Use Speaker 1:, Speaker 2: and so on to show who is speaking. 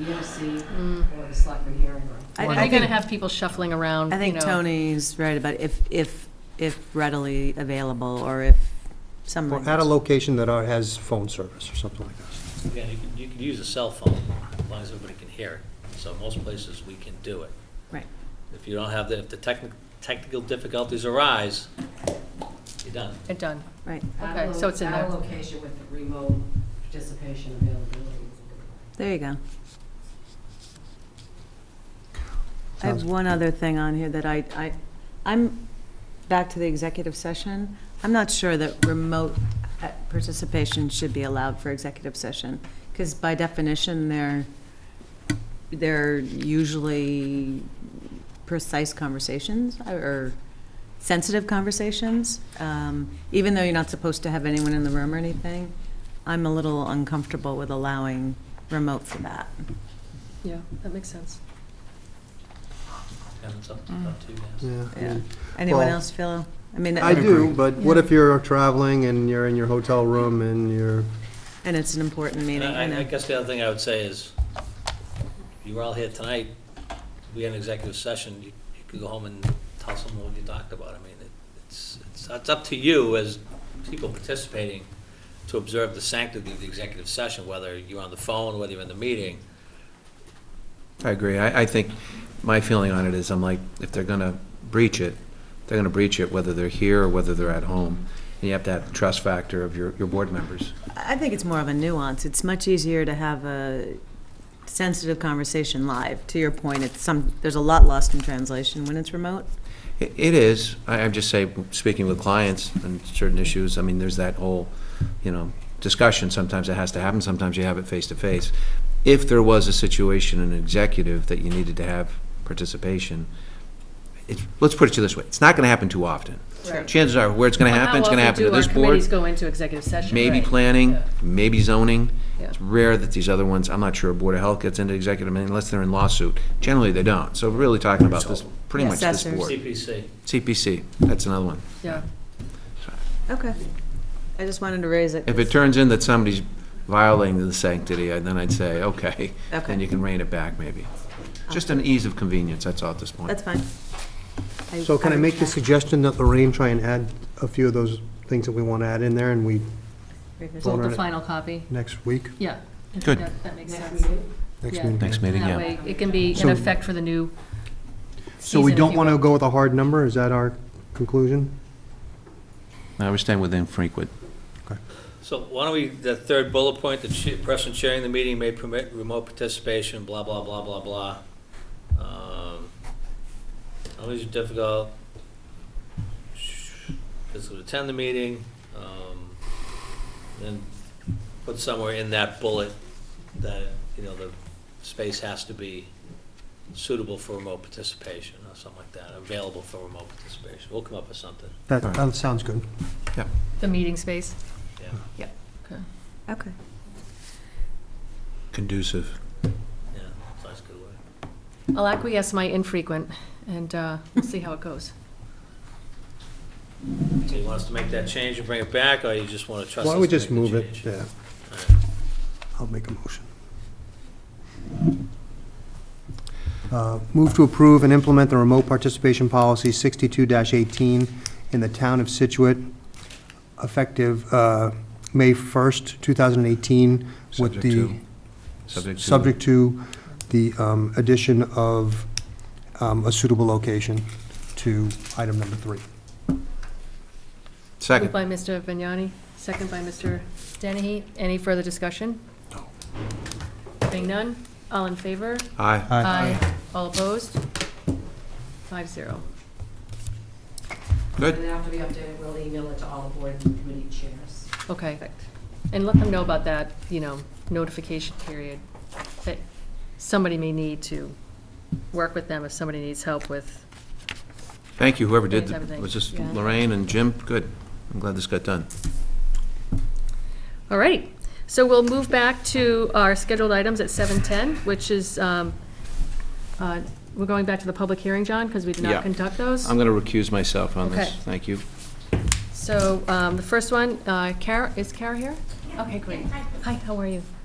Speaker 1: EMC
Speaker 2: Mm.
Speaker 1: or the selectman hearing room.
Speaker 3: I-
Speaker 2: Or
Speaker 3: I
Speaker 2: you're
Speaker 3: think-
Speaker 2: gonna have people shuffling around,
Speaker 3: I
Speaker 2: you
Speaker 3: think
Speaker 2: know.
Speaker 3: Tony's right about if, if, if readily available, or if some.
Speaker 4: Or at a location that are- has phone service or something like that.
Speaker 5: Again, you can, you can use a cell phone, as long as everybody can hear it. So most places, we can do it.
Speaker 3: Right.
Speaker 5: If you don't have, the if the techni- technical difficulties arise, you're done.
Speaker 2: They're done.
Speaker 3: Right,
Speaker 1: At
Speaker 2: Okay,
Speaker 1: a
Speaker 2: so it's in
Speaker 1: lo- At a
Speaker 2: there.
Speaker 1: location with the remote participation availability.
Speaker 3: there you go. I
Speaker 4: Sounds-
Speaker 3: have one other thing on here that I, I, I'm, back to the executive session. I'm not sure that remote uh, participation should be allowed for executive session, because by definition, they're, they're usually precise conversations uh, or sensitive conversations. Um, Even though you're not supposed to have anyone in the room or anything, I'm a little uncomfortable with allowing remote for that.
Speaker 2: Yeah, that makes sense.
Speaker 5: And it's up to
Speaker 3: Mm.
Speaker 5: up to you guys.
Speaker 4: Yeah. I
Speaker 3: Yeah.
Speaker 4: mean,
Speaker 3: Anyone
Speaker 4: Well,
Speaker 3: else feel? I mean,
Speaker 4: I do,
Speaker 6: agree.
Speaker 4: but what if you're traveling and you're in your hotel room and you're,
Speaker 3: And it's an important
Speaker 5: And
Speaker 3: meeting, I
Speaker 5: I, I
Speaker 3: know.
Speaker 5: guess the other thing I would say is, you were all here tonight, we had an executive session, you you could go home and tell someone what you talked about. I mean, it- it's, it's, it's up to you as people participating to observe the sanctity of the executive session, whether you're on the phone, whether you're in the meeting.
Speaker 6: I agree. I, I think, my feeling on it is, I'm like, if they're gonna breach it, they're gonna breach it whether they're here or whether they're at home. And you have to have the trust factor of your, your board members.
Speaker 3: I think it's more of a nuance. It's much easier to have a sensitive conversation live. To your point, it's some, there's a lot lost in translation when it's remote.
Speaker 6: It it is, I, I'm just saying, speaking with clients on certain issues, I mean, there's that whole, you know, discussion, sometimes it has to happen, sometimes you have it face-to-face. If there was a situation in executive that you needed to have participation, it's, let's put it to you this way, it's not gonna happen too often.
Speaker 2: Right.
Speaker 6: Chances are, where it's gonna happen, it's gonna happen to this
Speaker 2: How often do our
Speaker 6: board,
Speaker 2: committees go into executive session?
Speaker 6: maybe
Speaker 2: Right.
Speaker 6: planning,
Speaker 2: Yeah.
Speaker 6: maybe zoning.
Speaker 2: Yeah.
Speaker 6: It's rare that these other ones, I'm not sure Board of Health gets into executive unless they're in lawsuit. Generally, they don't, so we're really talking about this, pretty much this
Speaker 3: Assessors.
Speaker 6: board.
Speaker 5: CPC.
Speaker 6: CPC, that's another one.
Speaker 2: Yeah,
Speaker 3: Okay. I just wanted to raise it.
Speaker 6: If it
Speaker 3: 'cause-
Speaker 6: turns in that somebody's violating the sanctity, I- then I'd say, okay,
Speaker 3: Okay.
Speaker 6: then you can rein it back, maybe. Just an ease of convenience, that's all at this point.
Speaker 3: That's fine.
Speaker 4: so can I make the suggestion that Lorraine try and add a few of those things that we want to add in there and we,
Speaker 3: revisit?
Speaker 2: so
Speaker 4: Vote on
Speaker 2: the
Speaker 4: it.
Speaker 2: final copy,
Speaker 4: next week,
Speaker 2: yeah. I think
Speaker 6: Good.
Speaker 2: That that makes
Speaker 1: Next
Speaker 2: sense.
Speaker 1: meeting?
Speaker 4: next
Speaker 2: Yeah.
Speaker 4: meeting?
Speaker 6: Next meeting,
Speaker 2: That
Speaker 6: yeah.
Speaker 2: way, it can be in
Speaker 4: So-
Speaker 2: effect for the new
Speaker 4: So
Speaker 2: season,
Speaker 4: we
Speaker 2: if
Speaker 4: don't
Speaker 2: you
Speaker 4: want to
Speaker 2: will.
Speaker 4: go with a hard number, is that our conclusion?
Speaker 6: No, we're staying within frequent.
Speaker 5: So why don't we, the third bullet point, the chi- person chairing the meeting may permit remote participation, blah, blah, blah, blah, blah. Um, Always difficult. Just to attend the meeting, um, then put somewhere in that bullet that, you know, the space has to be suitable for remote participation or something like that, available for remote participation. We'll come up with something.
Speaker 4: That,
Speaker 6: Right.
Speaker 4: that sounds good.
Speaker 2: The meeting space?
Speaker 5: Yeah.
Speaker 2: Yep. Okay.
Speaker 3: Okay.
Speaker 6: Conducive.
Speaker 5: Yeah, that's a good way.
Speaker 2: I'll acquiesce my infrequent, and uh, we'll see how it goes.
Speaker 5: So you want us to make that change and bring it back, or you just want to trust us
Speaker 4: Why
Speaker 5: to
Speaker 4: don't we
Speaker 5: make
Speaker 4: just
Speaker 5: the
Speaker 4: move it?
Speaker 5: change?
Speaker 4: Yeah,
Speaker 5: All right.
Speaker 4: I'll make a motion. Uh, Move to approve and implement the remote participation policy 62-18 in the town of Situate, effective uh, May 1st, 2018, with
Speaker 6: Subject
Speaker 4: the,
Speaker 6: to- Subject to-
Speaker 4: subject to the um, addition of um, a suitable location to item number three.
Speaker 2: Moved
Speaker 6: Second.
Speaker 2: by Mr. Vignani, second by Mr. Dennehy. Any further discussion? No. Hearing none. All in favor?
Speaker 6: Aye.
Speaker 2: All opposed? Five zero.
Speaker 6: Good.
Speaker 1: And then after we update it, we'll email it to all the board and committee chairs.
Speaker 2: Okay. And let them know about that, you know, notification period that somebody may need to work with them if somebody needs help with.
Speaker 6: Thank you, whoever did,
Speaker 2: Thanks, everything.
Speaker 6: the- was this
Speaker 2: Yeah.
Speaker 6: Lorraine and Jim? Good. I'm glad this got done.
Speaker 2: All right. So we'll move back to our scheduled items at 7:10, which is, um, uh, we're going back to the public hearing, John, because we did
Speaker 6: Yeah.
Speaker 2: not conduct those.
Speaker 6: I'm going to recuse myself on this.
Speaker 2: Okay.
Speaker 6: Thank you.
Speaker 2: So um, the first one, uh, Kara, is Kara here? Okay, great. Hi, how are you?